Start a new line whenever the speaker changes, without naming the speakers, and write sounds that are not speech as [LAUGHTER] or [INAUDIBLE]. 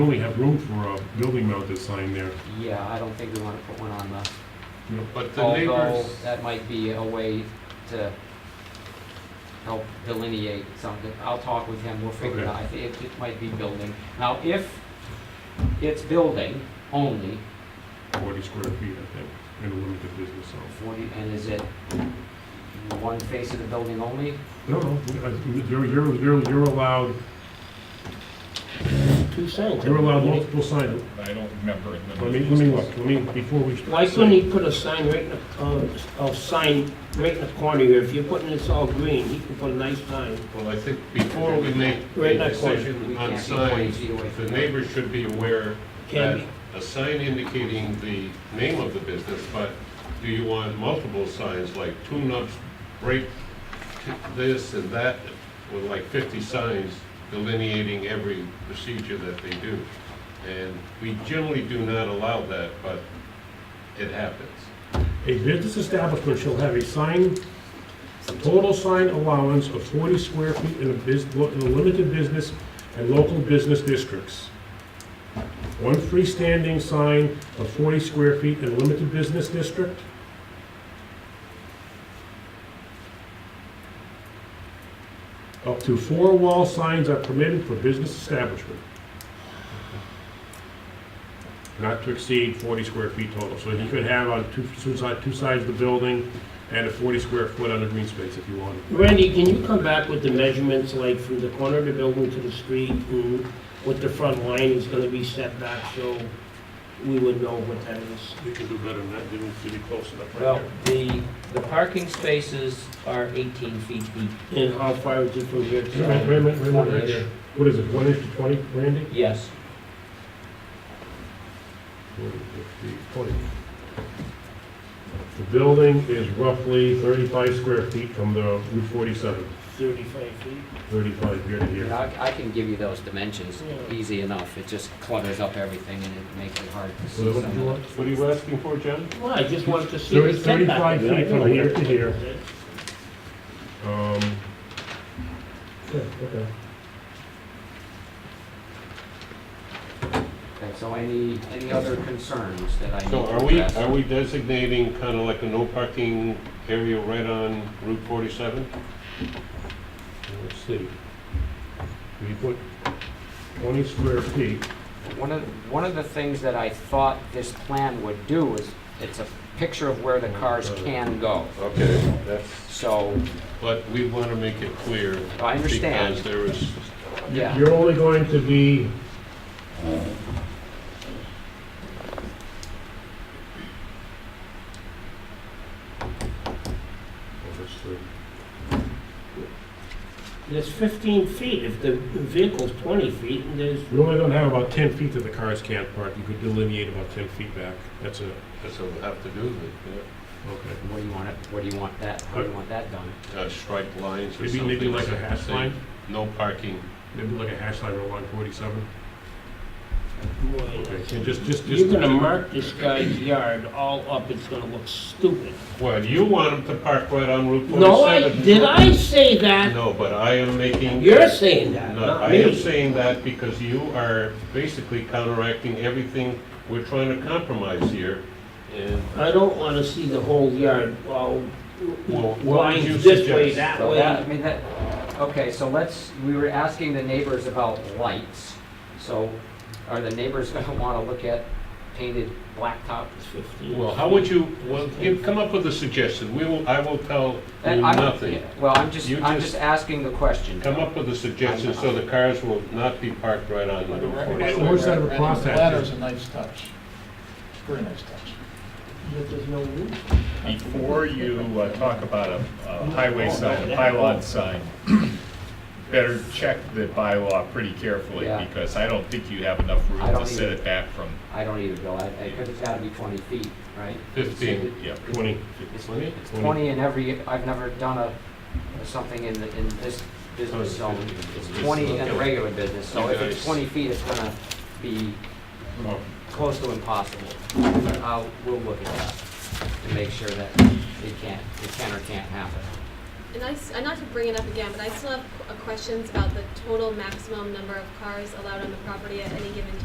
only have room for a building mounted sign there.
Yeah, I don't think we want to put one on the,
But the
although
neighbors,
that might be a way to help delineate something. I'll talk with him, we'll figure it out. I think it it might be building. Now, if it's building only,
forty square feet, I think, in a limited business zone.
forty, and is it one face of the building only?
No, no, I- you're, you're, you're, you're allowed,
Two signs.
you're allowed multiple signs.
I don't remember it.
Let me, let me look, let me, before we.
Why couldn't he put a sign right in the, uh, a sign right in the corner here? If you're putting this all green, he can put a nice sign.
well, I think before we make
Right,
a
that corner.
decision
We
on
can't be 20
signs,
feet away from
the
that.
neighbors should be aware
Can
that a sign indicating the name of the business, but do you want multiple signs, like tune-ups, break t- this and that, with like 50 signs delineating every procedure that they do? And we generally do not allow that, but it happens.
A business establishment shall have a sign, total sign allowance of forty square feet in a bus, in a limited business and local business districts. One freestanding sign of forty square feet in a limited business district. Up to four wall signs are permitted for business establishment. not to exceed 40 square feet total. So you could have on two, two sides, two sides of the building and a 40 square foot under green space if you wanted.
Randy, can you come back with the measurements, like from the corner of the building to the street, and what the front line is gonna be set back, so we would know what that is?
We can do better than that, didn't, did it close enough
Well, the, the parking spaces are 18 feet deep.
And how far is it from here to
Wait a
there?
minute, wait a minute, wait a minute. What is it, one inch to 20, Randy?
Yes.
40, 50, 20. The building is roughly 35 square feet from the Route 47,
Thirty-five feet?
35 here to here.
I I can give you those dimensions,
Yeah.
easy enough. It just clutters up everything and it makes it hard to see
So
some
What
of
do you
the-
want- what are you asking for, John?
Well, I just wanted to see
There
the
is
setback.
35 feet
I don't
from
know
here
what
to
that
here.
is.
Um, Yeah, okay.
Okay, so any, any other concerns that I need
So
to
are we,
address?
are we designating kind of like a no parking area right on Route 47?
Let's see. We put 20 square feet.
One of, one of the things that I thought this plan would do is, it's a picture of where the cars can go.
Okay, that's.
So,
But we want to make it clear.
I understand.
Because there is,
yeah,
You're only going to be...
There's fifteen feet, if the vehicle's twenty feet, and there's
You're only gonna have about 10 feet that the cars can't park. You could delineate about 10 feet back. That's it.
that's what we have to do, the,
Okay.
what do you want it, what do you want that, how do you want that done?
uh, striped lines or
Maybe,
something.
maybe like a
that
hash
say
line?
No parking.
Maybe like a hash line along 47?
more than
Okay,
that.
so just, just, just...
You're gonna mark this guy's yard all up, it's gonna look stupid.
Well, you want them to park right on Route 47.
No, I, did I say that?
No, but I am making.
You're saying that,
No,
not
I am
me.
saying that because you are basically counteracting everything we're trying to compromise here. And,
I don't wanna see the whole yard all
well, what would you
lines this way,
suggest?
that
So that, I
way.
mean, that, okay, so let's, we were asking the neighbors about lights. So are the neighbors [LAUGHS] gonna wanna look at painted blacktop?
It's 15.
Well, how would you, well, you come up with a suggestion. We will, I will tell you
And I'm-
nothing.
Well, I'm just,
You
I'm
just-
just asking the question.
Come up with a suggestion so the cars will not be parked right on the
Right,
road.
right. Where's that other
That
crosshatch?
Ladder's a nice touch, very nice touch.
But there's no roof.
Before you uh, talk about a a highway
Oh,
sign, a pylon sign, better check the bylaw pretty carefully,
Yeah.
because I don't think you have enough room
I don't
to set
either.
it back from,
I don't even know, I, I, cause it's gotta be twenty feet, right?
Fifteen.
yeah.
20.
It's
Twenty?
It's 20 in every, I've never done a, something in, the- in this business
Oh,
zone.
it's 50.
It's
It's
20 in a
okay.
regular business, so
You
if it's
guys-
20 feet, it's gonna be
Oh.
close to impossible. I'll, we'll look at that to make sure that it can't, it can or can't happen.
And I, s- uh, not to bring it up again, but I still have qu- uh, questions about the total maximum number of cars allowed on the property at any given